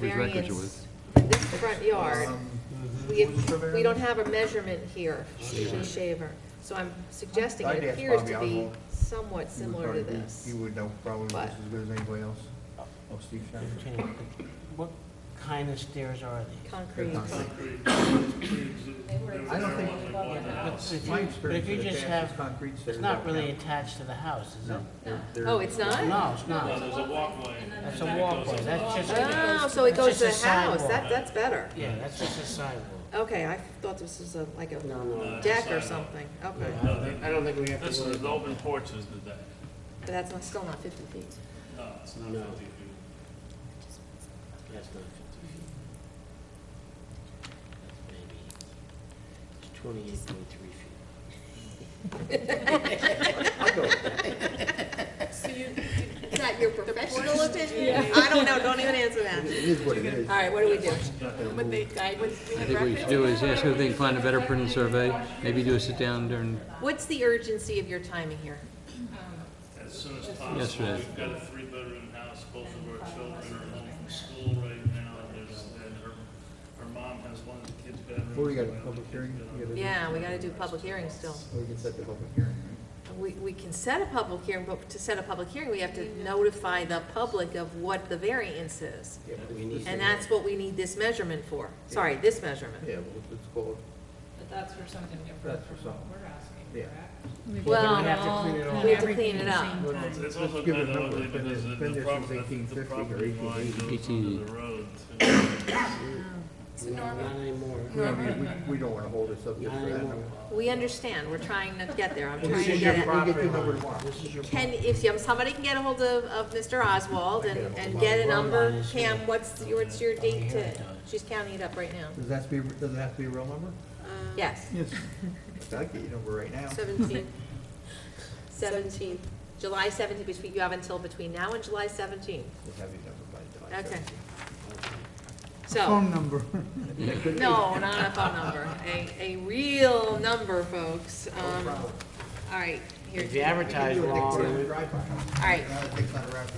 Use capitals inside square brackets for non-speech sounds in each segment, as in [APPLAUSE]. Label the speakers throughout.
Speaker 1: Whose record you
Speaker 2: variance for this front yard.
Speaker 3: Um,
Speaker 2: We, we don't have a measurement here, Shea Shaver. So I'm suggesting
Speaker 3: I'd
Speaker 2: it
Speaker 3: ask
Speaker 2: appears
Speaker 3: Bobby
Speaker 2: to be
Speaker 3: Oswald.
Speaker 2: somewhat
Speaker 3: You would
Speaker 2: similar to
Speaker 3: probably be-
Speaker 2: this.
Speaker 3: You would know probably
Speaker 2: But-
Speaker 3: just as good as anybody else. Oh, Steve Schneider.
Speaker 4: What kind of stairs are they?
Speaker 2: Concrete.
Speaker 3: I don't think,
Speaker 4: But if
Speaker 3: my
Speaker 4: you- but
Speaker 3: experience
Speaker 4: if you
Speaker 3: with
Speaker 4: just
Speaker 3: attached is
Speaker 4: have,
Speaker 3: concrete stairs.
Speaker 4: it's not
Speaker 3: don't
Speaker 4: really
Speaker 3: count.
Speaker 4: attached to the house, is it?
Speaker 3: No, they're- they're-
Speaker 2: Oh, it's not?
Speaker 4: No, it's
Speaker 5: No,
Speaker 4: not.
Speaker 5: there's a walkway.
Speaker 4: That's a walkway, that's just,
Speaker 2: Oh, so it
Speaker 4: It's
Speaker 2: goes to
Speaker 4: just
Speaker 2: the
Speaker 4: a
Speaker 2: house.
Speaker 4: sidewalk.
Speaker 2: That, that's better.
Speaker 4: yeah, that's just a sidewalk.
Speaker 2: Okay, I thought this was a, like a
Speaker 5: Uh,
Speaker 2: deck or
Speaker 5: sidewalk.
Speaker 2: something. Okay.
Speaker 4: No.
Speaker 5: No, they-
Speaker 6: I don't think we have
Speaker 5: This
Speaker 6: to worry
Speaker 5: is the
Speaker 6: about
Speaker 5: open porch is the deck.
Speaker 2: But that's not, still not fifty feet.
Speaker 5: No, it's not
Speaker 6: No.
Speaker 5: fifty feet.
Speaker 4: That's not fifty feet. That's maybe, it's twenty-eight point three feet.
Speaker 3: I'll go with that.
Speaker 2: [LAUGHS] So you, is that your professional opinion? I don't know, don't even answer
Speaker 3: [LAUGHS]
Speaker 2: that.
Speaker 3: It is what it is.
Speaker 2: All right, what do we do?
Speaker 7: Would they guide, would we
Speaker 1: I
Speaker 7: have
Speaker 1: think what we
Speaker 7: reference?
Speaker 1: should do is ask her if they can find a better printed survey, maybe do a sit-down during,
Speaker 2: What's the urgency of your timing here?
Speaker 5: As soon as
Speaker 1: Yes,
Speaker 5: possible,
Speaker 1: it is.
Speaker 5: we've got a three-bedroom house, both of our children are home from school right now. There's, and her, her mom has one of the kids' bedrooms.
Speaker 3: Before we got a
Speaker 5: and the other
Speaker 3: public
Speaker 5: kid's
Speaker 3: hearing, we
Speaker 5: bedroom.
Speaker 3: gotta do-
Speaker 2: Yeah, we gotta do public hearing still.
Speaker 3: We can set the public hearing.
Speaker 2: We, we can set a public hearing, but to set a public hearing, we have to notify the public of what the variance is.
Speaker 3: Yeah, but it's-
Speaker 2: And that's what we need this measurement for. Sorry, this measurement.
Speaker 3: Yeah, well, it's- it's called,
Speaker 8: But that's for something different
Speaker 3: That's for
Speaker 8: from what
Speaker 3: something.
Speaker 8: we're asking,
Speaker 3: Yeah.
Speaker 8: correct?
Speaker 2: Well,
Speaker 4: have to clean it all up.
Speaker 2: we have to clean it up.
Speaker 3: Well,
Speaker 5: Well, It's also
Speaker 3: Let's give it
Speaker 5: kind
Speaker 3: a
Speaker 5: of
Speaker 3: number.
Speaker 5: ugly
Speaker 3: It's been
Speaker 5: because
Speaker 3: there-
Speaker 5: the
Speaker 3: been
Speaker 5: the
Speaker 3: there since
Speaker 5: property, the
Speaker 3: 1850 or
Speaker 5: property line
Speaker 3: 1880.
Speaker 5: goes under the road. too.
Speaker 4: No, not anymore.
Speaker 3: I mean, we, we don't wanna hold this up just
Speaker 4: Not
Speaker 3: for that.
Speaker 4: anymore.
Speaker 2: We understand, we're trying not to get there, I'm trying
Speaker 3: This
Speaker 2: to
Speaker 3: is your
Speaker 2: get it.
Speaker 3: property
Speaker 4: Property
Speaker 3: number
Speaker 4: line.
Speaker 3: one.
Speaker 4: This is your
Speaker 2: Can, if you- somebody can get a hold of, of Mr. Oswald and, and get a number, Pam, what's, your- what's your date to, she's counting it up right now.
Speaker 3: Does that have to be, does it have to be a real number?
Speaker 2: Yes,
Speaker 3: Yes. I'll get your number right now.
Speaker 7: Seventeen,
Speaker 2: seventeen, July seventeenth, between, you have until between now and July seventeenth.
Speaker 3: We'll have your number by July
Speaker 2: Okay.
Speaker 3: 17th.
Speaker 2: So,
Speaker 3: number.
Speaker 2: no, not a phone number, a, a real number, folks. Um, all right, here.
Speaker 4: If you advertise wrong,
Speaker 2: All right,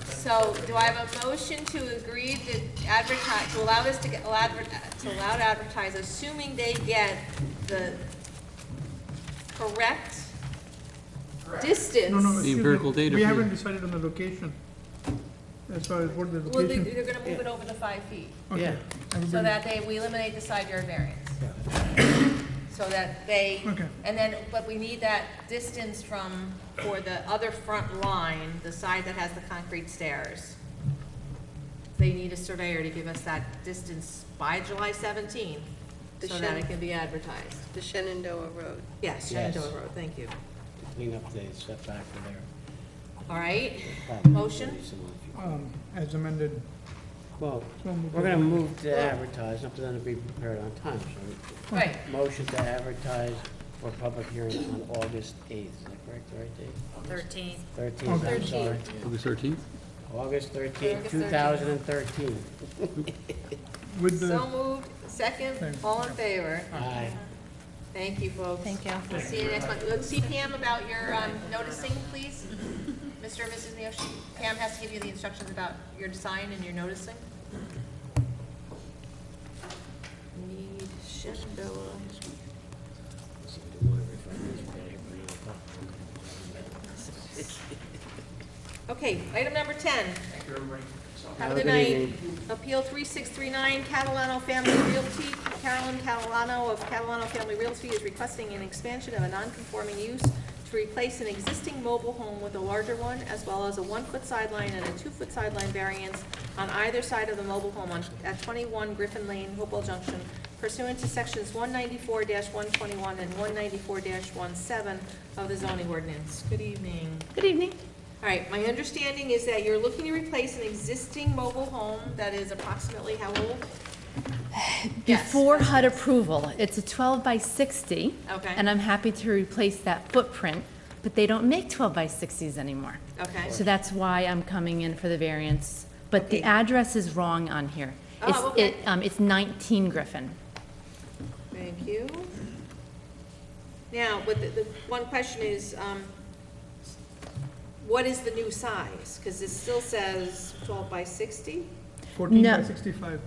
Speaker 2: so do I have a motion to agree to advertise, to allow this to get, allow adver- to allow to advertise, assuming they get the correct distance?
Speaker 9: [LAUGHS] No, no. excuse me.
Speaker 1: empirical data
Speaker 9: We
Speaker 1: for-
Speaker 9: haven't decided on the location. As far as what the
Speaker 8: Well, they-
Speaker 9: location.
Speaker 8: they're gonna move it over to five feet,
Speaker 4: yeah,
Speaker 8: so that they, we eliminate the side yard variance. So that they,
Speaker 9: Okay.
Speaker 8: and then, but we need that distance from,
Speaker 2: For the other front line, the side that has the concrete stairs, they need a surveyor to give us that distance by July seventeenth,
Speaker 7: The
Speaker 2: so that
Speaker 7: shed.
Speaker 2: it can be advertised.
Speaker 7: the Shenandoah Road.
Speaker 2: Yes,
Speaker 4: Yes.
Speaker 2: Shenandoah Road, thank you.
Speaker 4: clean up the setback for their.
Speaker 2: All right,
Speaker 4: property.
Speaker 2: Motion?
Speaker 9: Um, as amended,
Speaker 4: Well,
Speaker 9: So moved.
Speaker 4: we're gonna move to advertise, something that'll be prepared on time, so
Speaker 8: right,
Speaker 4: Motion to advertise for public hearing on August 8th, is that correct, right, Dave?
Speaker 2: Thirteenth.
Speaker 4: 13th, I'm sorry.
Speaker 1: August 13th?
Speaker 4: August 13th,
Speaker 8: August 13th.
Speaker 4: 2013.
Speaker 9: with
Speaker 2: So
Speaker 9: the,
Speaker 2: moved, second, all in favor.
Speaker 4: Aye.
Speaker 2: Thank you, folks. Thank you. We'll see you next month. Look, See Pam about your um, noticing, [LAUGHS] please. Mr. and Mrs. Neosh, Pam has to give you the instructions about your design and your noticing. Need Shenandoah. Okay, item number ten. Have a good
Speaker 4: Have a good
Speaker 2: night. Appeal three six three nine, Catalano Family Realty. Carolyn Catalano of Catalano Family Realty is requesting an expansion of a non-conforming use to replace an existing mobile home with a larger one, as well as a one-foot sideline and a two-foot sideline variance on either side of the mobile home on, at twenty-one Griffin Lane, Hopewell Junction, pursuant to sections one ninety-four one twenty-one and one ninety-four 17 of the zoning ordinance. Good evening.
Speaker 7: Good evening.
Speaker 2: All right, my understanding is that you're looking to replace an existing mobile home that is approximately how old? Yes.
Speaker 10: Before HUD approval, it's a 12 by 60.
Speaker 2: Okay.
Speaker 10: And I'm happy to replace that footprint, but they don't make 12 by 60s anymore.
Speaker 2: Okay.
Speaker 10: So that's why I'm coming in for the variance. But the
Speaker 2: Okay.
Speaker 10: address is wrong on here.
Speaker 2: Oh,
Speaker 10: It's-
Speaker 2: okay.
Speaker 10: it, um, It's 19 Griffin.
Speaker 2: Thank you. Now, but the, the one question is, um, what is the new size? Because it still says twelve by sixty?
Speaker 9: fourteen by
Speaker 10: No.
Speaker 9: sixty-five.